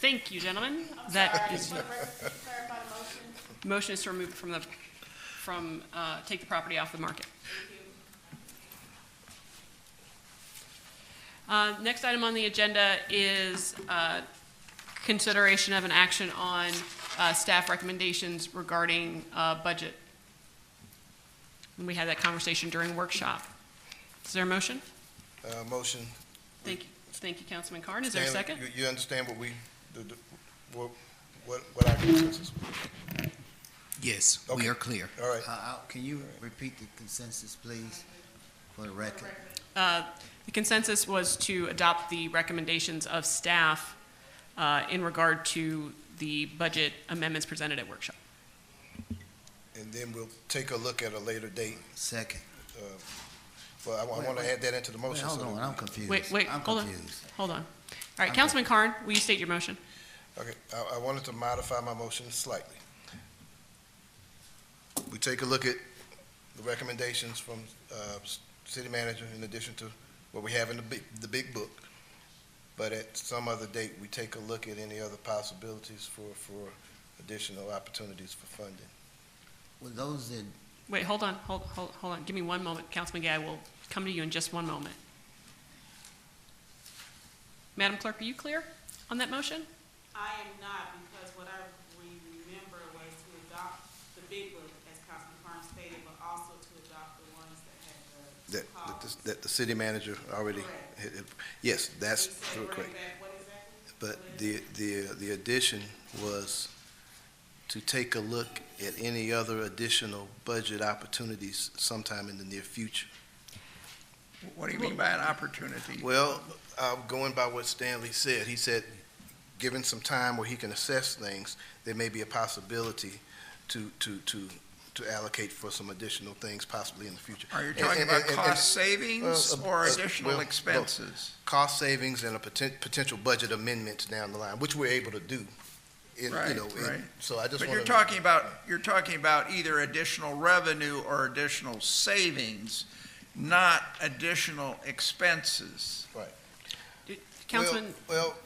Thank you, gentlemen. That is, motion is to remove it from the, from, uh, take the property off the market. Uh, Next item on the agenda is uh, consideration of an action on uh, staff recommendations regarding uh, budget. And we had that conversation during workshop. Is there a motion? Uh, motion. Thank you, thank you, Councilman Carn. Is there a Stanley, second? You, you understand what we, the, the, what, what, what our consensus? Yes, Okay. we are clear. All right. Uh, uh, Can you repeat the consensus, please, for the record? Uh, The consensus was to adopt the recommendations of staff uh, in regard to the budget amendments presented at workshop. And then we'll take a look at a later date, Second. uh, but I want, I want to add that into the Wait, motion. hold Oh, so on, that I'm we- confused. Wait, wait, I'm hold on. confused. Hold on. All right, Councilman Carn, will you state your motion? Okay, I, I wanted to modify my motion slightly. We take a look at the recommendations from, uh, s- city manager in addition to what we have in the big, the big book. But at some other date, we take a look at any other possibilities for, for additional opportunities for funding. Well, those that, Wait, hold on, hold, hold, hold on. Give me one moment. Councilman Guy will come to you in just one moment. Madam Clerk, are you clear on that motion? I am not, because what I re- remember was to adopt the big book, as Councilman Carnes stated, but also to adopt the ones that had the That, that calls. the- that the city manager already, had- had- yes, that's You said correct. bring back what exactly? But the, the, the addition was to take a look at any other additional budget opportunities sometime in the near future. What do you mean by an opportunity? Well, uh, going by what Stanley said, he said, given some time where he can assess things, there may be a possibility to, to, to, to allocate for some additional things possibly in the future. Are you And- talking and- about and- and- cost well, savings uh, or uh, well, additional both. expenses? cost savings and a poten- potential budget amendments down the line, which we're able to do. in- you Right, know, in- right. So I just But want to. you're talking about, you're talking about either additional revenue or additional savings, not additional expenses. Councilman, Well,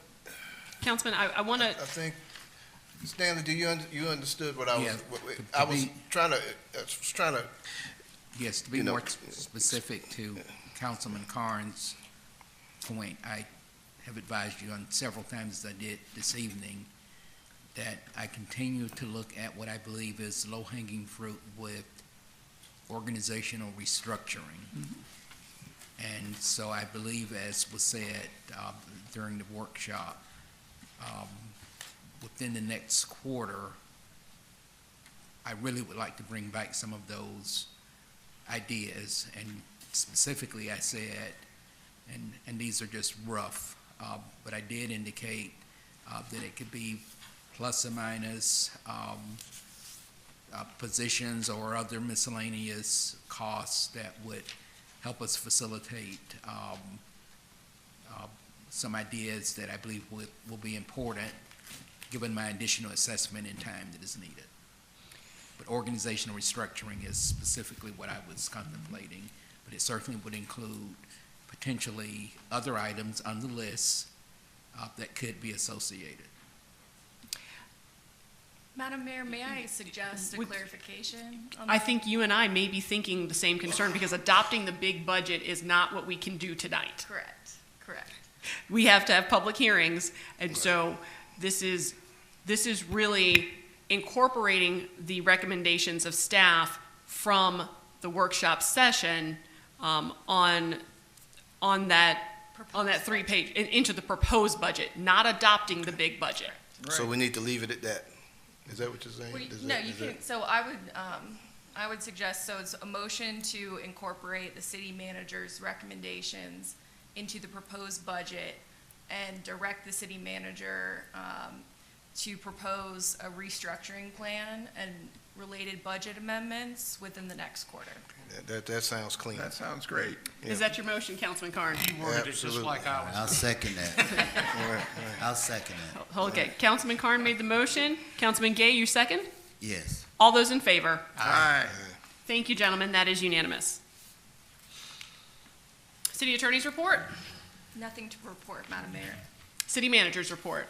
Councilman, I, I want to, I think, Stanley, do you, un- you understood what I was, Yeah, what- what- to- to I was be- trying to, I was trying to, yes, to be You know- more s- specific to Councilman Carnes' point, I have advised you on several times as I did this evening, that I continue to look at what I believe is low-hanging fruit with organizational restructuring. And so I believe, as was said uh, during the workshop, um, within the next quarter, I really would like to bring back some of those ideas. And specifically, I said, and, and these are just rough, uh, but I did indicate uh, that it could be plus or minus um, uh, positions or other miscellaneous costs that would help us facilitate um, uh, some ideas that I believe would, will be important, given my additional assessment and time that is needed. But organizational restructuring is specifically what I was contemplating, but it certainly would include potentially other items on the list uh, that could be associated. Madam Mayor, may I suggest a Would- clarification? on I that? think you and I may be thinking the same concern because adopting the big budget is not what we can do tonight. Correct, correct. We have to have public hearings, and so this is, this is really incorporating the recommendations of staff from the workshop session um, on, on that, on that three-page, in- into the proposed budget, not adopting the big budget. so we need to leave it at that. Is that what you're saying? Well, Is No, that- you is that- can, so I would, um, I would suggest, so it's a motion to incorporate the city manager's recommendations into the proposed budget and direct the city manager, um, to propose a restructuring plan and related budget amendments within the next quarter. That, that, that sounds clean. That sounds great. Is that your motion, Councilman Carn? You worded it just Absolutely. like I was. I'll second that. All right, all right. I'll second that. Okay, Councilman Carn made the motion. Councilman Gay, you second? Yes. All those in favor? Aye. Thank you, gentlemen. That is unanimous. City Attorney's report, Nothing to report, Madam Mayor. City Manager's report.